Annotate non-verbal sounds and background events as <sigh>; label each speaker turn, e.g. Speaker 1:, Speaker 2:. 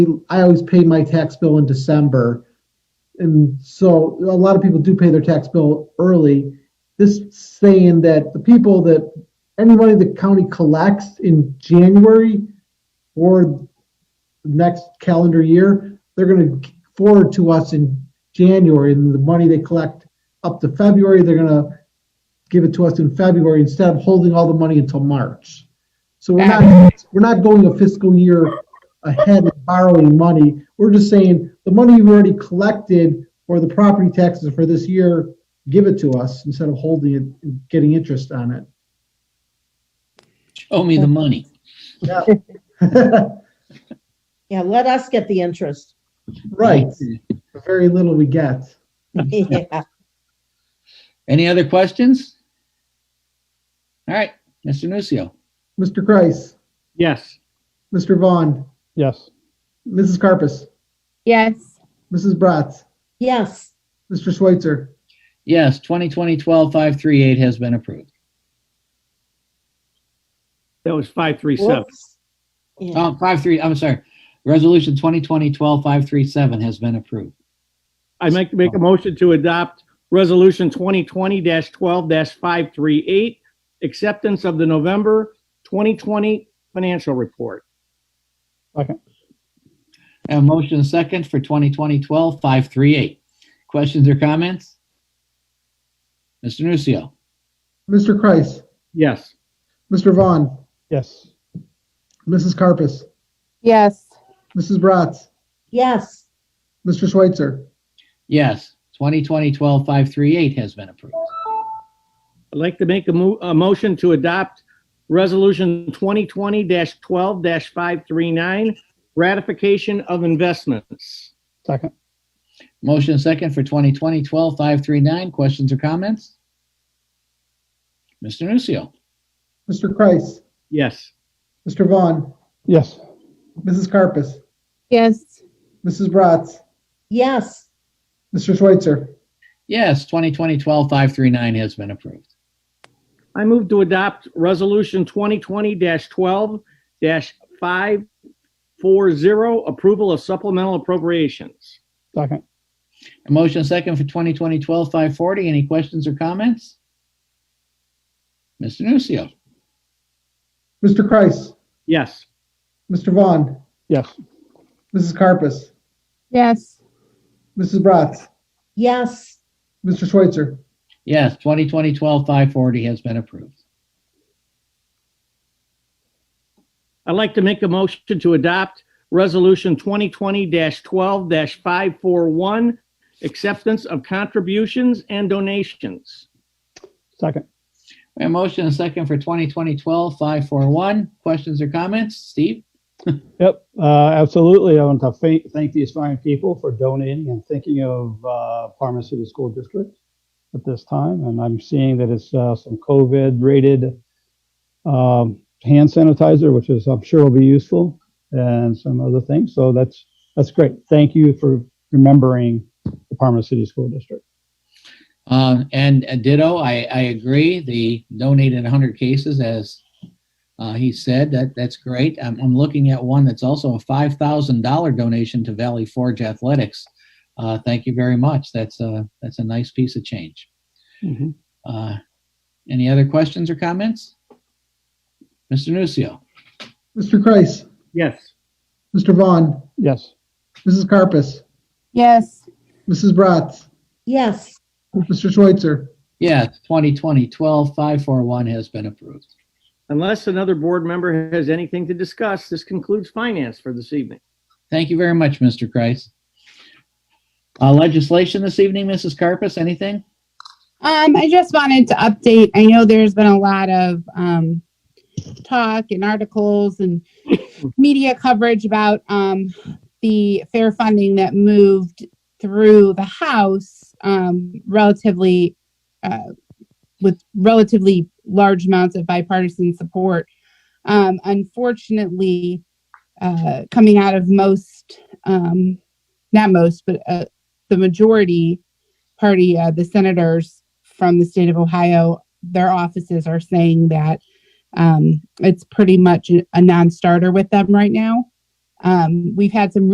Speaker 1: I always pay my tax bill in December. And so a lot of people do pay their tax bill early. This saying that the people that any money the county collects in January or next calendar year, they're going to forward to us in January. And the money they collect up to February, they're going to give it to us in February instead of holding all the money until March. So we're not, we're not going a fiscal year ahead of borrowing money. We're just saying the money you've already collected or the property taxes for this year, give it to us instead of holding it and getting interest on it.
Speaker 2: Show me the money.
Speaker 3: Yeah, let us get the interest.
Speaker 1: <laughs> Right, the very little we get.
Speaker 3: Yeah.
Speaker 2: Any other questions? All right, Mr. Nucio.
Speaker 1: Mr. Kreis,
Speaker 4: Yes.
Speaker 1: Mr. Vaughn,
Speaker 4: Yes.
Speaker 1: Mrs. Carpus,
Speaker 5: yes,
Speaker 1: Mrs. Bratz,
Speaker 3: Yes,
Speaker 1: Mr. Schweitzer.
Speaker 2: Yes, 2020-12-538 has been approved.
Speaker 4: That was five, three, seven.
Speaker 3: whoops. Yeah,
Speaker 2: Oh, 53, I'm sorry. Resolution 2020-12-537 has been approved.
Speaker 4: I make, make a motion to adopt resolution twenty twenty twelve five three eight, acceptance of the November twenty twenty financial report.
Speaker 2: I have a motion and a second for 2020-12-538. Questions or comments? Mr. Nucio.
Speaker 1: Mr. Kreis,
Speaker 4: Yes.
Speaker 1: Mr. Vaughn,
Speaker 4: Yes.
Speaker 1: Mrs. Carpus,
Speaker 5: yes,
Speaker 1: Mrs. Bratz,
Speaker 3: yes,
Speaker 1: Mr. Schweitzer.
Speaker 2: Yes, 2020-12-538 has been approved.
Speaker 4: I'd like to make a mo- a motion to adopt resolution twenty twenty twelve five three nine, ratification of investments.
Speaker 2: Motion and second for 2020-12-539. Questions or comments? Mr. Nucio.
Speaker 1: Mr. Kreis,
Speaker 4: Yes.
Speaker 1: Mr. Vaughn,
Speaker 4: Yes.
Speaker 1: Mrs. Carpus,
Speaker 5: yes,
Speaker 1: Mrs. Bratz,
Speaker 3: yes,
Speaker 1: Mr. Schweitzer.
Speaker 2: Yes, 2020-12-539 has been approved.
Speaker 4: I move to adopt Resolution 2020-12-540, approval of supplemental appropriations.
Speaker 6: Second,
Speaker 2: A motion and second for 2020-12-540. Any questions or comments? Mr. Nucio.
Speaker 1: Mr. Kreis,
Speaker 4: Yes.
Speaker 1: Mr. Vaughn,
Speaker 6: yes,
Speaker 1: Mrs. Carpus,
Speaker 5: yes,
Speaker 1: Mrs. Bratz,
Speaker 3: yes,
Speaker 1: Mr. Schweitzer.
Speaker 2: Yes, 2020-12-540 has been approved.
Speaker 4: I'd like to make a motion to adopt Resolution 2020-12-541, acceptance of contributions and donations.
Speaker 6: second,
Speaker 2: A motion and second for 2020-12-541. Questions or comments? Steve?
Speaker 6: yep, uh, absolutely. I want to fa- thank the aspiring people for donating and thinking of uh, Parma City School District at this time. And I'm seeing that it's uh, some COVID-rated um, hand sanitizer, which is I'm sure will be useful, and some other things. So that's that's great. Thank you for remembering the Parma City School District.
Speaker 2: Um, and uh, ditto, I, I agree. The donated 100 cases, as uh, he said, that that's great. I'm, I'm looking at one that's also a $5,000 donation to Valley Forge Athletics. Uh, thank you very much. That's a that's a nice piece of change.
Speaker 6: Mhm.
Speaker 2: Uh, any other questions or comments, Mr. Nucio?
Speaker 1: Mr. Kreis,
Speaker 4: Yes.
Speaker 1: Mr. Vaughn,
Speaker 6: Yes,
Speaker 1: Mrs. Carpus,
Speaker 5: yes,
Speaker 1: Mrs. Bratz,
Speaker 3: yes,
Speaker 1: Mr. Schweitzer.
Speaker 2: Yes, 2020-12-541 has been approved.
Speaker 4: Unless another board member has anything to discuss, this concludes finance for this evening.
Speaker 2: Thank you very much, Mr. Kreis. Uh, legislation this evening, Mrs. Carpus, anything?
Speaker 5: Um, I just wanted to update. I know there's been a lot of um, talk and articles and media coverage about um, the fair funding that moved through the House um, relatively uh, with relatively large amounts of bipartisan support. Um, unfortunately, uh, coming out of most, um, not most, but uh, the majority party, uh, the senators from the state of Ohio, their offices are saying that um, it's pretty much a non starter with them right now. Um, we've had some